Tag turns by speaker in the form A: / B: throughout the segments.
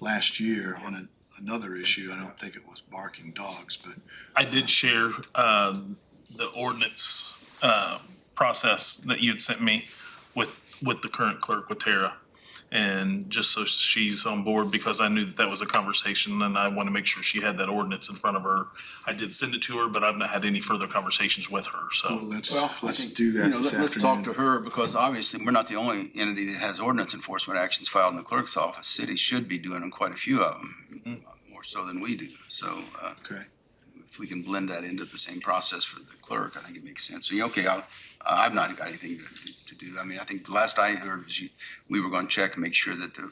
A: last year on an- another issue. I don't think it was barking dogs, but
B: I did share, um, the ordinance, uh, process that you'd sent me with, with the current clerk, with Tara. And just so she's on board, because I knew that that was a conversation and I want to make sure she had that ordinance in front of her. I did send it to her, but I've not had any further conversations with her, so.
A: let's,
C: Well, I
A: let's
C: think,
A: do
C: you
A: that
C: know,
A: this
C: let- Let's talk to
A: afternoon.
C: her, because obviously, we're not the only entity that has ordinance enforcement actions filed in the clerk's office. City should be doing quite a few of them, more so than we do. So uh,
A: Okay,
C: if we can blend that into the same process for the clerk, I think it makes sense. So, yeah, okay, I'll- I've not got anything to- to do. I mean, I think the last I heard was you, we were going to check and make sure that the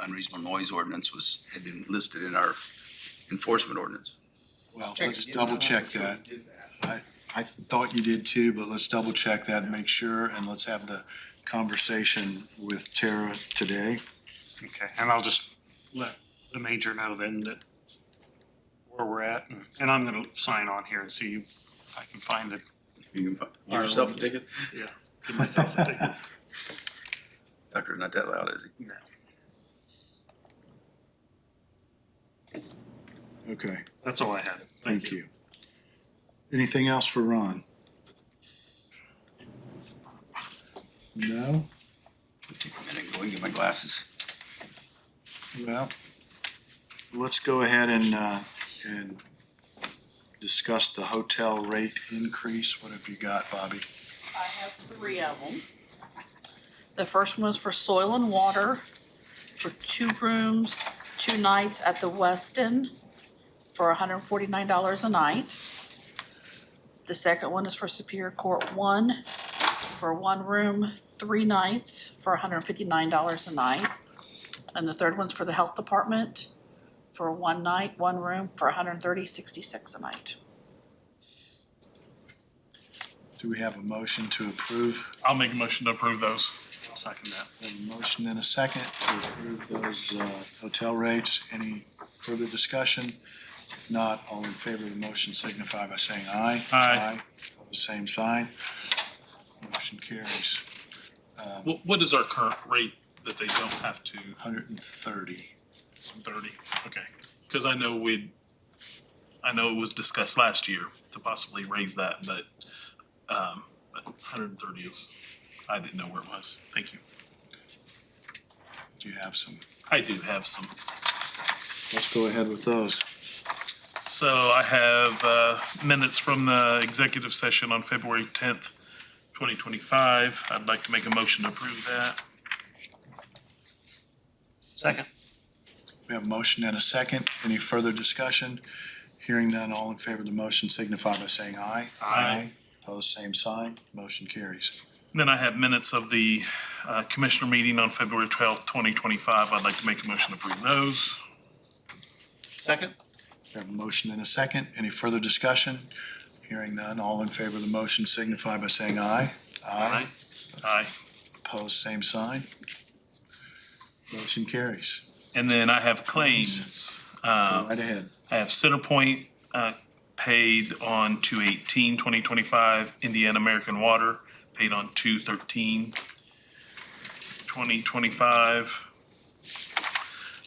C: unreasonable noise ordinance was, had been listed in our enforcement ordinance.
A: well, let's double check that. I, I thought you did too, but let's double check that and make sure, and let's have the conversation with Tara today.
D: Okay, and I'll just let the major know then that where we're at, and- and I'm gonna sign on here and see if I can find it.
C: You can fi- give yourself a ticket.
D: Yeah. Give myself a ticket.
C: Tucker's not that loud, is he?
D: No.
A: Okay,
D: That's all I had.
A: thank you. Anything else for Ron? No?
C: Take a minute, and go and get my glasses.
A: Well, let's go ahead and, uh, and discuss the hotel rate increase. What have you got, Bobby?
E: I have three of them. The first one was for soil and water for two rooms, two nights at the Westin for hundred and forty-nine dollars a night. The second one is for Superior Court One for one room, three nights for hundred and fifty-nine dollars a night. And the third one's for the Health Department for one night, one room for $130.66 a night.
A: Do we have a motion to approve?
B: I'll make a motion to approve those.
D: I'll second that.
A: We have A motion and a second to approve those, uh, hotel rates. Any further discussion? If not, all in favor of the motion signify by saying aye.
B: Aye.
A: Opposed, Same sign. Motion carries.
B: What, what is our current rate that they don't have to
A: Hundred and thirty.
B: thirty? Okay, because I know we, I know it was discussed last year to possibly raise that, but, um, but hundred and thirty is, I didn't know where it was. Thank you.
A: Do you have some?
B: I do have some.
A: Let's go ahead with those.
B: So I have uh, minutes from the executive session on February tenth, twenty twenty-five. I'd like to make a motion to approve that.
D: Second.
A: We have a motion and a second. Any further discussion? Hearing none, all in favor of the motion signify by saying aye.
B: Aye.
A: Opposed, same sign. Motion carries.
B: Then I have minutes of the uh, commissioner meeting on February twelfth, twenty twenty-five. I'd like to make a motion to approve those.
D: Second?
A: We have a motion and a second. Any further discussion? Hearing none, all in favor of the motion signify by saying aye.
B: Aye.
A: Opposed, same sign. Motion carries.
B: And then I have claims.
A: Go
B: Uh,
A: Right ahead.
B: I have Centerpoint, uh, paid on 2025. Indiana American Water, paid on 2025.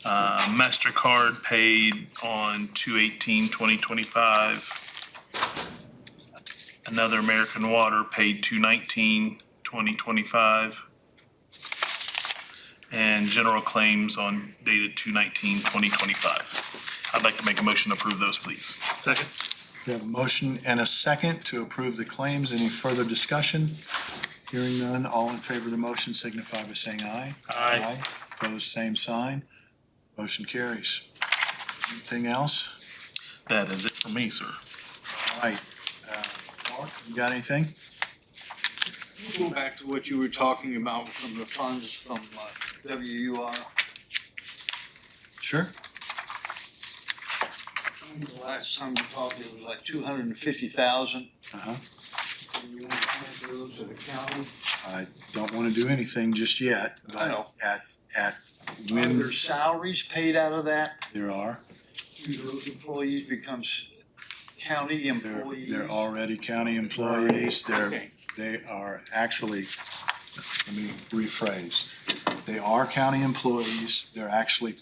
B: Uh, MasterCard paid on 2025. Another American Water paid 2025. and general claims on dated 2025. I'd like to make a motion to approve those, please.
D: Second.
A: We have a motion and a second to approve the claims. Any further discussion? Hearing none, all in favor of the motion signify by saying aye.
B: Aye.
A: Opposed, same sign. Motion carries. Anything else?
B: That is it for me, sir.
A: All right. Uh, Mark, you got anything?
F: Go back to what you were talking about from the funds from uh, WUR.
A: Sure.
F: The last time we talked, it was like two hundred and fifty thousand.
A: Uh-huh.
F: You want to hand those to the county?
A: I don't want to do anything just yet,
F: I
A: but
F: know.
A: at, at
F: Are
A: when
F: their salaries paid out of that?
A: there are,
F: Do those employees become s- county
A: they're,
F: employees?
A: they're already county employees. They're,
F: Okay.
A: they are actually, let me rephrase. They are county employees. They're actually